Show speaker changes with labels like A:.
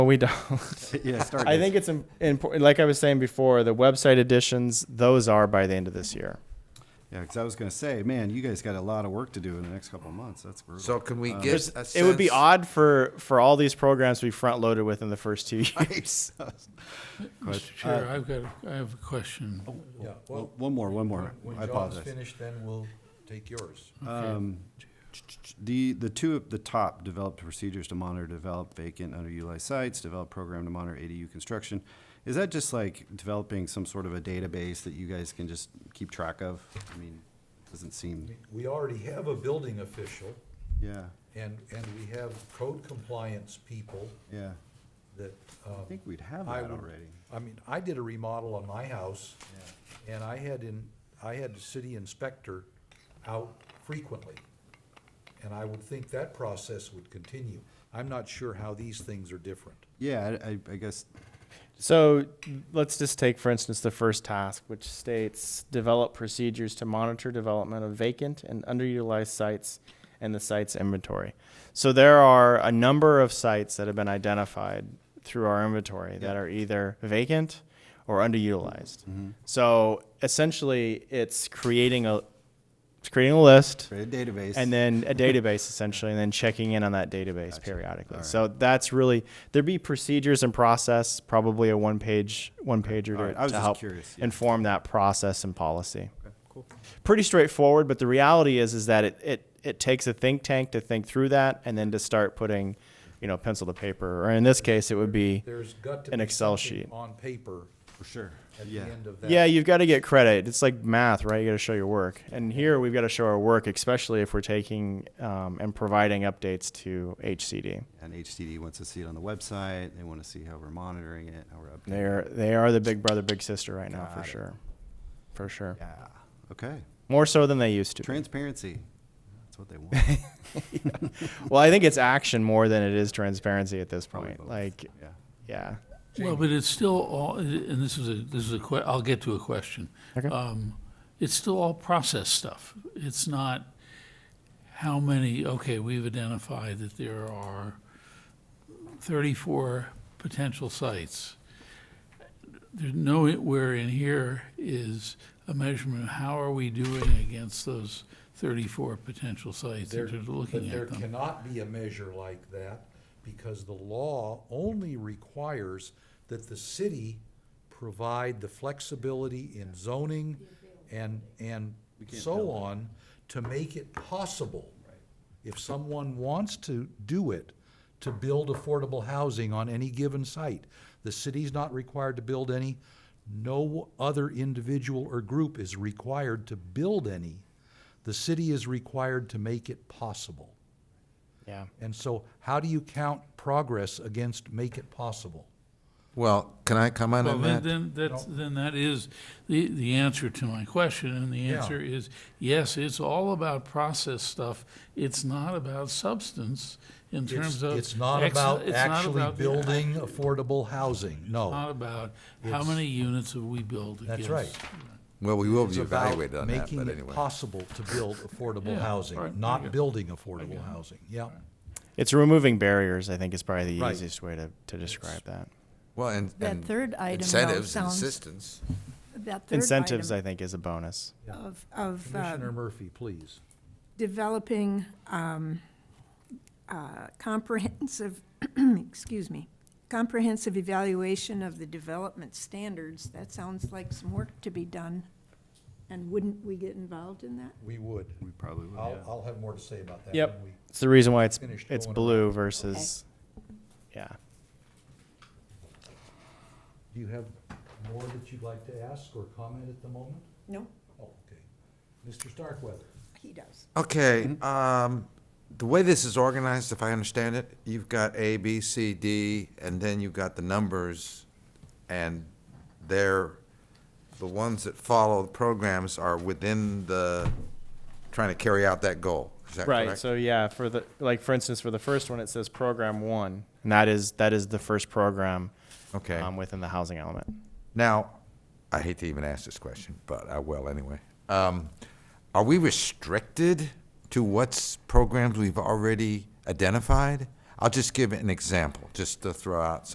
A: we don't.
B: Yeah, start.
A: I think it's important. Like I was saying before, the website additions, those are by the end of this year.
B: Yeah, because I was going to say, man, you guys got a lot of work to do in the next couple of months. That's brutal.
C: So can we
A: Uh, There's-
C: get a
A: it would be
C: sense-
A: odd for for all these programs to be front loaded within the first two years.
D: Mr. Chair, I've got, I have a question.
E: Yeah,
B: Well,
E: well,
B: one more, one more.
E: when
B: I
E: John's
B: apologize.
E: finished, then we'll take yours.
B: um, The, the two at the top, develop procedures to monitor, develop vacant underutilized sites, develop program to monitor ADU construction. Is that just like developing some sort of a database that you guys can just keep track of? I mean, doesn't seem,
E: We already have a building official,
B: yeah,
E: and, and we have code compliance people
B: yeah.
E: that, um,
B: I think we'd have
E: I
B: that
E: would-
B: already.
E: I mean, I did a remodel on my house, and I had in, I had the city inspector out frequently. And I would think that process would continue. I'm not sure how these things are different.
B: Yeah, I, I- I guess,
A: So let's just take, for instance, the first task, which states develop procedures to monitor development of vacant and underutilized sites and the site's inventory. So there are a number of sites that have been identified through our inventory that are either vacant or underutilized. So essentially, it's creating a it's creating a list
B: create a database.
A: and then a database essentially, and then checking in on that database periodically.
B: All right.
A: So that's really there'd be procedures and process, probably a one page one pager
B: All
A: to,
B: right. I was
A: to
B: just
A: help
B: curious, yeah.
A: inform that process and policy. Pretty straightforward, but the reality is is that it, it it takes a think tank to think through that and then to start putting, you know, pencil to paper, or in this case, it would be
E: There's got to be
A: an Excel
E: something
A: sheet.
E: on paper
B: For sure.
E: at the
B: Yeah,
E: end of that.
A: Yeah, you've got to get credit. It's like math, right? You got to show your work. And here we've got to show our work, especially if we're taking um, and providing updates to HCD.
B: and HCD wants to see it on the website. They want to see how we're monitoring it, how we're updating.
A: They are they are the big brother, big sister right now for
B: Got it.
A: sure, for sure.
B: Yeah, okay.
A: More so than they used to. be.
B: Transparency. That's what they want.
A: well, I think it's action more than it is transparency at this
B: Probably
A: point.
B: both.
A: Like,
B: Yeah.
A: yeah,
D: Well, but it's still all, and this is a, this is a que, I'll get to a question.
A: Okay.
D: Um, It's still all process stuff. It's not how many, okay, we've identified that there are thirty-four potential sites. There's nowhere in here is a measurement of how are we doing against those thirty-four potential sites
E: There,
D: that are
E: but
D: looking
E: there
D: at them.
E: cannot be a measure like that because the law only requires that the city provide the flexibility in zoning and, and so on to make it possible. If someone wants to do it, to build affordable housing on any given site, the city's not required to build any. No other individual or group is required to build any. The city is required to make it possible.
A: yeah.
E: And so how do you count progress against make it possible?
C: Well, can I comment
D: Well,
C: on
D: then,
C: that?
D: then, that's, then that is the, the answer to my question, and the
E: Yeah.
D: answer is, yes, it's all about process stuff. It's not about substance in terms
E: It's,
D: of.
E: it's not
D: ex-
E: about
D: it's not
E: actually
D: about the- Uh,
E: building affordable housing,
D: It's not
E: no.
D: about how many units have we built against.
E: That's right.
C: Well, we will
E: It's
C: be
E: about
C: evaluated on that, but
E: Making it
C: anyway.
E: possible to build affordable
D: Yeah, all right,
E: housing,
D: there you
E: not
D: go.
E: building affordable housing, yeah.
A: It's removing barriers. I think is probably the
E: Right.
A: easiest way to, to describe that.
C: Well, and,
F: That
C: and
F: third item, though,
C: incentives and
F: sounds-
C: assistance.
F: That third
A: Incentives, I
F: item
A: think, is a bonus.
F: of, of uh,
E: Commissioner Murphy, please.
F: developing um, uh, comprehensive, excuse me, comprehensive evaluation of the development standards, that sounds like some work to be done. And wouldn't we get involved in that?
E: We would.
B: We probably would.
E: I'll, I'll have more to say about that.
A: Yep.
E: when we-
A: It's the reason why it's
E: Finished
A: it's
E: going
A: blue versus, yeah.
E: Do you have more that you'd like to ask or comment at the moment?
F: No,
E: Oh, okay. Mr. Starkweather?
F: he does.
C: Okay, um, the way this is organized, if I understand it, you've got A, B, C, D, and then you've got the numbers, and they're, the ones that follow the programs are within the, trying to carry out that goal. Is that correct?
A: Right. So yeah, for the like for instance, for the first one, it says program one, and that is that is the first program
C: Okay.
A: um, within the housing element.
C: Now, I hate to even ask this question, but I will anyway. Um, are we restricted to what's programs we've already identified? I'll just give an example, just to throw out